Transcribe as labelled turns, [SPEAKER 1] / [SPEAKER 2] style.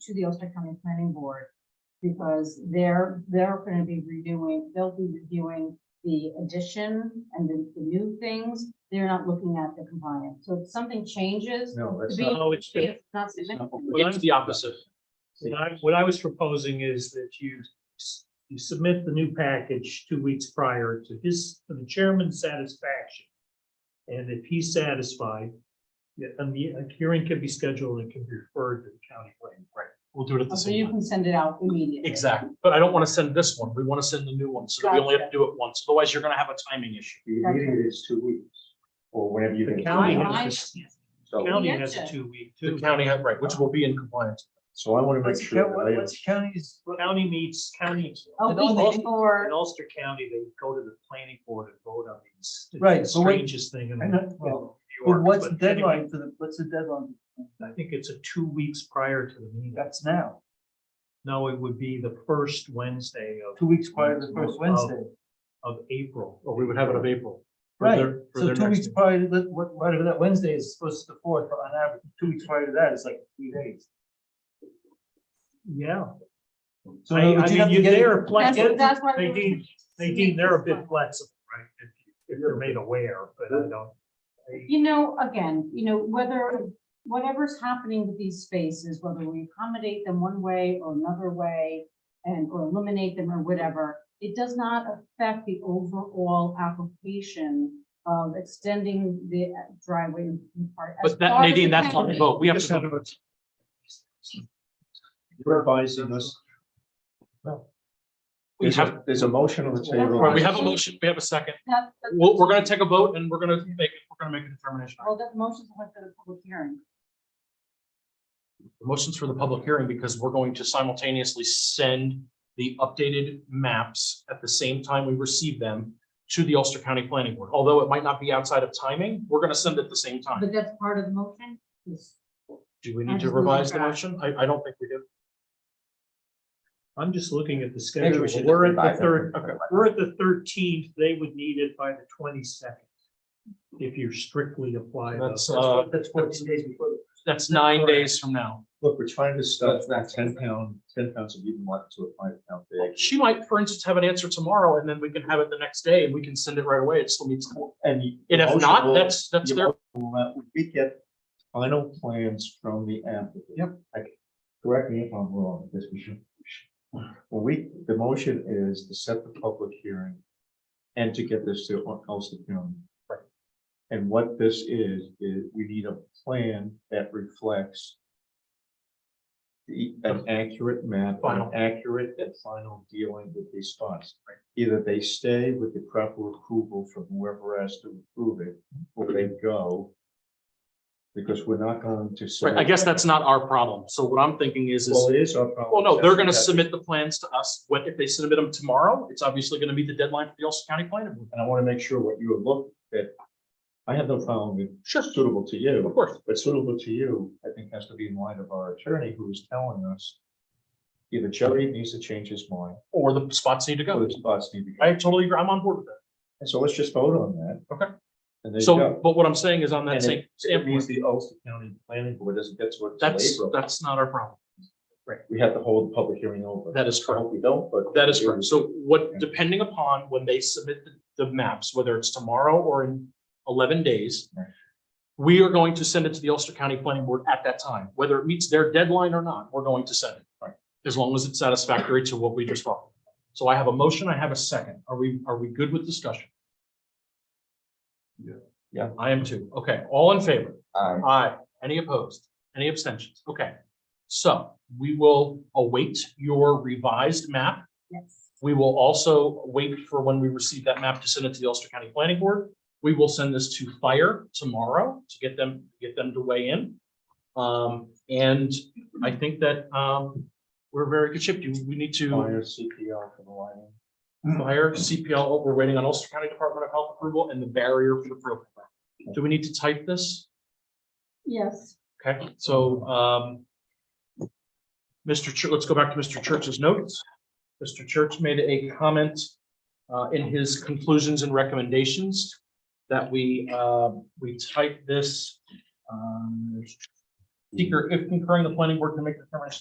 [SPEAKER 1] to the Ulster County Planning Board. Because they're, they're gonna be reviewing, they'll be reviewing the addition and the, the new things. They're not looking at the compliance. So if something changes,
[SPEAKER 2] No, that's
[SPEAKER 1] Be-
[SPEAKER 2] not.
[SPEAKER 3] No, it's,
[SPEAKER 1] it's not
[SPEAKER 2] that's
[SPEAKER 1] significant.
[SPEAKER 2] not what
[SPEAKER 3] Well,
[SPEAKER 2] we're-
[SPEAKER 3] that's
[SPEAKER 4] It's the opposite.
[SPEAKER 3] what I, what I was proposing is that you, s- you submit the new package two weeks prior to his, to the chairman's satisfaction. And if he's satisfied, yeah, and the a hearing can be scheduled and can be referred to the county planning.
[SPEAKER 4] Right, we'll do it at the
[SPEAKER 1] So you
[SPEAKER 4] same time.
[SPEAKER 1] can send it out immediately.
[SPEAKER 4] Exactly, but I don't want to send this one. We want to send the new one, so that we only have to do it once. Otherwise, you're going to have a timing issue.
[SPEAKER 2] The meeting is two weeks, or whenever you
[SPEAKER 3] The
[SPEAKER 2] can.
[SPEAKER 3] county
[SPEAKER 1] Why- why-
[SPEAKER 3] has, the
[SPEAKER 2] So,
[SPEAKER 3] county
[SPEAKER 1] Yes,
[SPEAKER 3] has a
[SPEAKER 1] sir.
[SPEAKER 3] two week,
[SPEAKER 4] The
[SPEAKER 3] too.
[SPEAKER 4] county, had- right, which will be in compliance.
[SPEAKER 2] so I want to make sure. that I am-
[SPEAKER 3] county's? County meets, county.
[SPEAKER 1] A
[SPEAKER 3] in
[SPEAKER 1] week
[SPEAKER 3] Ulster-
[SPEAKER 1] before-
[SPEAKER 3] In Ulster County, they go to the planning board and vote on these. It's
[SPEAKER 5] Right,
[SPEAKER 3] the
[SPEAKER 5] so what-
[SPEAKER 3] Strangest thing. in
[SPEAKER 4] Mm-hmm.
[SPEAKER 5] I know, well,
[SPEAKER 3] New
[SPEAKER 5] Well,
[SPEAKER 3] York,
[SPEAKER 5] what's the
[SPEAKER 3] but anyway,
[SPEAKER 5] deadline for the, what's the deadline?
[SPEAKER 3] I think it's a two weeks prior to the meeting.
[SPEAKER 5] That's now,
[SPEAKER 3] No, it would be the first Wednesday of.
[SPEAKER 5] two weeks prior to the first Wednesday.
[SPEAKER 3] Of April.
[SPEAKER 4] Or we would have it of April. for
[SPEAKER 5] Right,
[SPEAKER 4] their- for
[SPEAKER 5] so
[SPEAKER 4] their
[SPEAKER 5] two
[SPEAKER 4] next
[SPEAKER 5] weeks
[SPEAKER 4] meeting.
[SPEAKER 5] prior to that, what, whatever that Wednesday is supposed to be the fourth, but on average, two weeks prior to that is like three days.
[SPEAKER 3] Yeah.
[SPEAKER 5] So
[SPEAKER 3] I,
[SPEAKER 5] in other words,
[SPEAKER 3] I
[SPEAKER 5] you'd have
[SPEAKER 3] mean, you-
[SPEAKER 5] to get it-
[SPEAKER 3] they're
[SPEAKER 1] That's,
[SPEAKER 3] flexible,
[SPEAKER 1] that's why.
[SPEAKER 3] they
[SPEAKER 1] we're-
[SPEAKER 3] deem, they deem they're a bit flexible, right? If you- If they're made aware, but I don't. I-
[SPEAKER 1] You know, again, you know, whether, whatever's happening with these spaces, whether we accommodate them one way or another way and, or eliminate them or whatever, it does not affect the overall application of extending the driveway part. as
[SPEAKER 4] But that,
[SPEAKER 1] far as
[SPEAKER 4] Nadine,
[SPEAKER 1] it
[SPEAKER 4] that's
[SPEAKER 1] can
[SPEAKER 4] not the
[SPEAKER 1] be.
[SPEAKER 4] vote. We have
[SPEAKER 3] Just
[SPEAKER 4] to.
[SPEAKER 3] have
[SPEAKER 4] vote.
[SPEAKER 2] You're advising us.
[SPEAKER 4] We
[SPEAKER 2] There's
[SPEAKER 4] have,
[SPEAKER 2] a, there's a motion on the table.
[SPEAKER 4] right, we have a motion, we have a second.
[SPEAKER 1] That- that-
[SPEAKER 4] We're, we're going to take a vote and we're going to make, we're going to make a determination.
[SPEAKER 1] Well, that motion's went to the public hearing.
[SPEAKER 4] The Motion's for the public hearing because we're going to simultaneously send the updated maps at the same time we receive them to the Ulster County Planning Board. Although it might not be outside of timing, we're going to send it at the same time.
[SPEAKER 1] But that's part of the motion? Yes.
[SPEAKER 4] Do we
[SPEAKER 1] I
[SPEAKER 4] need to
[SPEAKER 1] just moved it
[SPEAKER 4] revise the
[SPEAKER 1] back.
[SPEAKER 4] motion? I, I don't think we do.
[SPEAKER 3] I'm just looking at the
[SPEAKER 2] Maybe
[SPEAKER 3] schedule.
[SPEAKER 2] we should
[SPEAKER 3] We're
[SPEAKER 2] just
[SPEAKER 3] at the
[SPEAKER 2] revise
[SPEAKER 3] third,
[SPEAKER 2] it. Okay.
[SPEAKER 3] we're at the thirteenth. They would need it by the twenty-second. If you strictly apply. the-
[SPEAKER 4] That's, uh,
[SPEAKER 5] That's fourteen days before. the-
[SPEAKER 4] That's nine days from now.
[SPEAKER 2] Look, we're trying to stuff that ten pound, ten pounds of even one to a five pound bag.
[SPEAKER 4] She might, for instance, have an answer tomorrow and then we can have it the next day and we can send it right away. It still needs.
[SPEAKER 2] And. you-
[SPEAKER 4] And if
[SPEAKER 2] motion
[SPEAKER 4] not,
[SPEAKER 2] will-
[SPEAKER 4] that's, that's
[SPEAKER 2] your
[SPEAKER 4] their,
[SPEAKER 2] motion will not- We get final plans from the applicant.
[SPEAKER 4] Yep.
[SPEAKER 2] I- Correct me if I'm wrong, this we should. Well, we, the motion is to set the public hearing and to get this to Ul- Ulster County.
[SPEAKER 4] Right.
[SPEAKER 2] And what this is, is we need a plan that reflects the- an accurate map, an
[SPEAKER 4] Final.
[SPEAKER 2] accurate and final dealing with these spots. Either they stay with the proper approval from whoever has to approve it, or they go. Because we're not going to.
[SPEAKER 4] right, I guess that's not our problem. So what I'm thinking is, is
[SPEAKER 2] Well, it is our problem.
[SPEAKER 4] Well, no, they're gonna
[SPEAKER 2] That's-
[SPEAKER 4] submit the plans to us. What if they submit them tomorrow? It's obviously gonna meet the deadline for the Ulster County Planning Board.
[SPEAKER 2] And I want to make sure what you have looked at. I have no problem with
[SPEAKER 4] Sure,
[SPEAKER 2] suitable to
[SPEAKER 4] of
[SPEAKER 2] you,
[SPEAKER 4] course.
[SPEAKER 2] but suitable to you, I think has to be in light of our attorney who is telling us. Either Jody needs to change his mind,
[SPEAKER 4] Or the spots need to
[SPEAKER 2] or
[SPEAKER 4] go.
[SPEAKER 2] the spots need to go.
[SPEAKER 4] I totally agree. I'm on board with that.
[SPEAKER 2] And so let's just vote on that.
[SPEAKER 4] Okay.
[SPEAKER 2] And there you
[SPEAKER 4] So,
[SPEAKER 2] go.
[SPEAKER 4] but what I'm saying is on that
[SPEAKER 2] And it-
[SPEAKER 4] same,
[SPEAKER 2] It means
[SPEAKER 4] standpoint,
[SPEAKER 2] the Ulster County Planning Board doesn't get to it till
[SPEAKER 4] that's,
[SPEAKER 2] April.
[SPEAKER 4] that's not our problem.
[SPEAKER 2] We have to hold the public hearing over.
[SPEAKER 4] That is
[SPEAKER 2] I
[SPEAKER 4] correct.
[SPEAKER 2] hope we don't, but.
[SPEAKER 4] That is correct. So what, depending upon when they submit the the maps, whether it's tomorrow or in eleven days,
[SPEAKER 2] Right.
[SPEAKER 4] we are going to send it to the Ulster County Planning Board at that time, whether it meets their deadline or not, we're going to send it.
[SPEAKER 2] Right.
[SPEAKER 4] As long as it's satisfactory to what we just brought. So I have a motion, I have a second. Are we, are we good with discussion?
[SPEAKER 2] Yeah. Yeah.
[SPEAKER 4] I am too. Okay, all in favor?
[SPEAKER 2] Aye.
[SPEAKER 4] Aye. Any opposed? Any abstentions? Okay. So we will await your revised map.
[SPEAKER 1] Yes.
[SPEAKER 4] We will also wait for when we receive that map to send it to the Ulster County Planning Board. We will send this to fire tomorrow to get them, get them to weigh in. Um, and I think that, um, we're very good ship. Do We need to
[SPEAKER 2] Fire CPR for the lighting.
[SPEAKER 4] fire CPL. We're waiting on Ulster County Department of Health approval and the barrier for the program. Do we need to type this?
[SPEAKER 1] Yes.
[SPEAKER 4] Okay, so, um, Mr. Church, let's go back to Mr. Church's notes. Mr. Church made a comment, uh, in his conclusions and recommendations that we, uh, we uh, type this, um, seeker, if concurring the planning board can make determination